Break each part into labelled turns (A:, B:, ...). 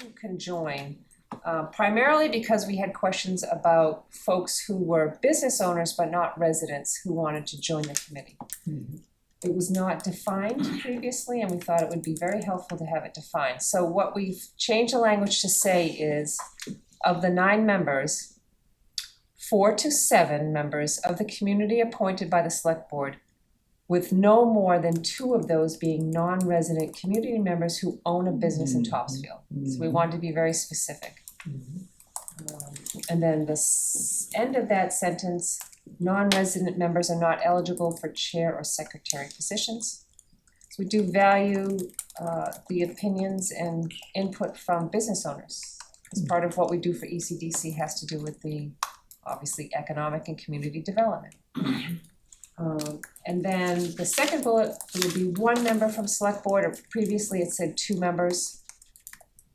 A: who can join, uh, primarily because we had questions about folks who were business owners but not residents who wanted to join the committee. It was not defined previously, and we thought it would be very helpful to have it defined. So what we've changed the language to say is, of the nine members, four to seven members of the community appointed by the select board with no more than two of those being non-resident community members who own a business in Topsfield. So
B: Mm-hmm.
A: we wanted to be very specific. Um, And then the s- end of that sentence, non-resident members are not eligible for chair or secretary positions. So we do value uh the opinions and input from business owners. Because part of what we do for E ECDC has to do with the, obviously, economic and community development. Um, and then the second bullet, it would be one member from select board, or previously it said two members.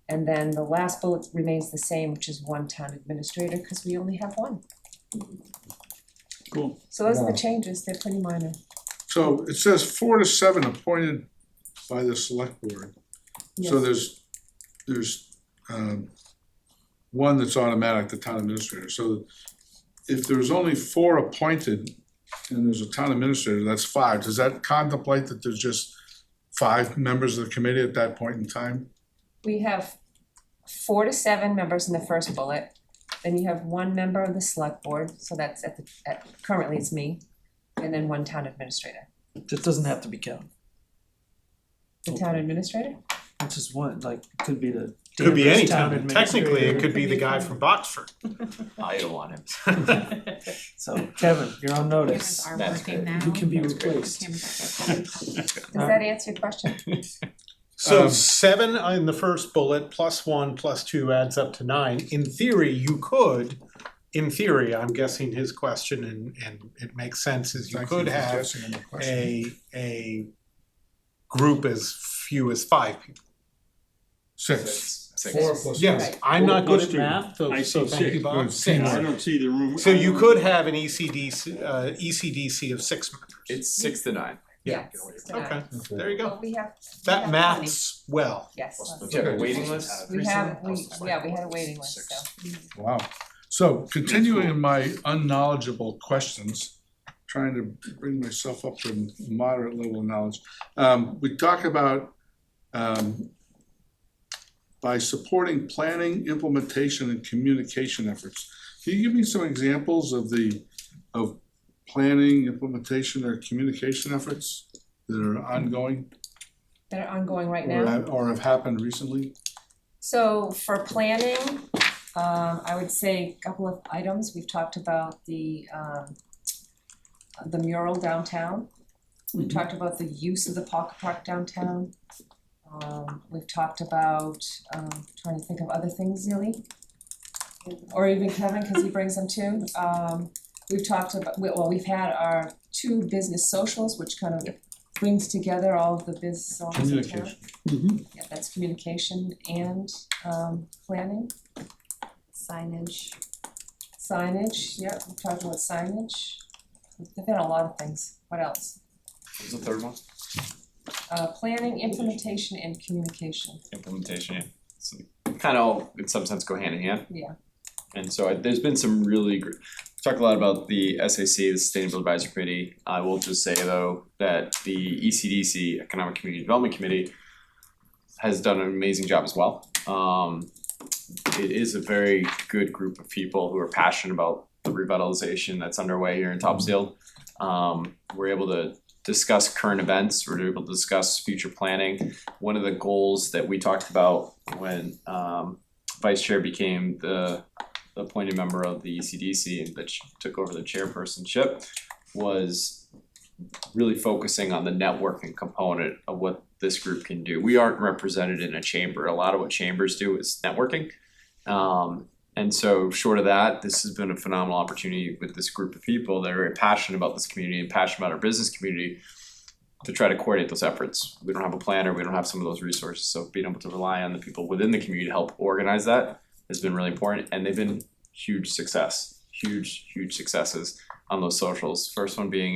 A: And then the last bullet remains the same, which is one town administrator, cause we only have one.
B: Cool.
A: So those are
C: Yeah.
A: the changes, they're pretty minor.
B: So it says four to seven appointed by the select board. So
A: Yes.
B: there's, there's, um, one that's automatic, the town administrator. So if there's only four appointed and there's a town administrator, that's five. Does that contemplate that there's just five members of the committee at that point in time?
A: We have four to seven members in the first bullet. Then you have one member of the select board, so that's at the, at, currently it's me, and then one town administrator.
D: That doesn't have to be Kevin.
A: The town administrator?
D: It's just one, like, it could be the.
E: Could be
D: Danvers
E: any town. Technically,
D: administrator.
E: it could be the guy from Boxford.
F: I don't want him.
D: So Kevin, you're on notice.
G: Cameras are
F: That's
G: working
F: good.
G: now.
D: You can be
F: That's great.
D: replaced.
G: Cameras are working.
A: Does that answer your question?
E: So
B: Um,
E: seven in the first bullet, plus one, plus two adds up to nine. In theory, you could, in theory, I'm guessing his question and, and it makes sense is you
B: Thank
E: could
B: for
E: have
B: guessing on the question.
E: a, a group as few as five people.
B: Six.
F: Six.
B: Four plus.
E: Yes, I'm not good at math, so
B: I
E: so
B: see
E: thank you,
B: six.
E: Bob.
B: Good, teamwork.
E: Six.
B: don't
H: see the room.
E: So you could have an E ECDC, uh, ECDC of six members.
F: It's six to nine.
E: Yeah.
A: Yes, it's not.
E: Okay, there you
A: Well,
E: go.
A: we have, we have
E: That
A: plenty.
E: maths well.
A: Yes,
F: Do you have a waiting list?
A: we have, we, yeah, we had a waiting list, so.
B: Wow. So continuing in my unknowledgeable questions, trying to bring myself up to moderate level of knowledge. Um, we talk about, um, by supporting planning, implementation and communication efforts. Can you give me some examples of the, of planning, implementation or communication efforts that are ongoing?
A: That are ongoing right now.
B: or have- Or have happened recently?
A: So for planning, um, I would say a couple of items, we've talked about the, um, the mural downtown. We've talked about the use of the pocket park downtown. Um, we've talked about, um, trying to think of other things, Neely. Or even Kevin, cause he brings them too. Um, we've talked about, we- well, we've had our two business socials, which kind of brings together all of the business owners in town.
B: Communication.
A: Yeah, that's communication and um planning,
G: Signage.
A: signage, yeah, we talked about signage. We've done a lot of things, what else?
F: What's the third one?
A: Uh planning, implementation and communication,
F: Implementation, yeah. So kind of, in some sense, go hand in hand.
A: yeah.
F: And so I, there's been some really great, talked a lot about the SAC, the Sustainable Advisory Committee. I will just say though, that the E ECDC, Economic Community Development Committee, has done an amazing job as well. Um, it is a very good group of people who are passionate about the revitalization that's underway here in Topsfield. Um, we're able to discuss current events, we're able to discuss future planning. One of the goals that we talked about when, um, Vice Chair became the appointed member of the E ECDC that ch- took over the chairpersonship was really focusing on the networking component of what this group can do. We aren't represented in a chamber. A lot of what chambers do is networking. Um, and so, short of that, this has been a phenomenal opportunity with this group of people that are very passionate about this community and passionate about our business community to try to coordinate those efforts. We don't have a planner, we don't have some of those resources. So, being able to rely on the people within the community to help organize that has been really important and they've been huge success huge huge successes on those socials first one being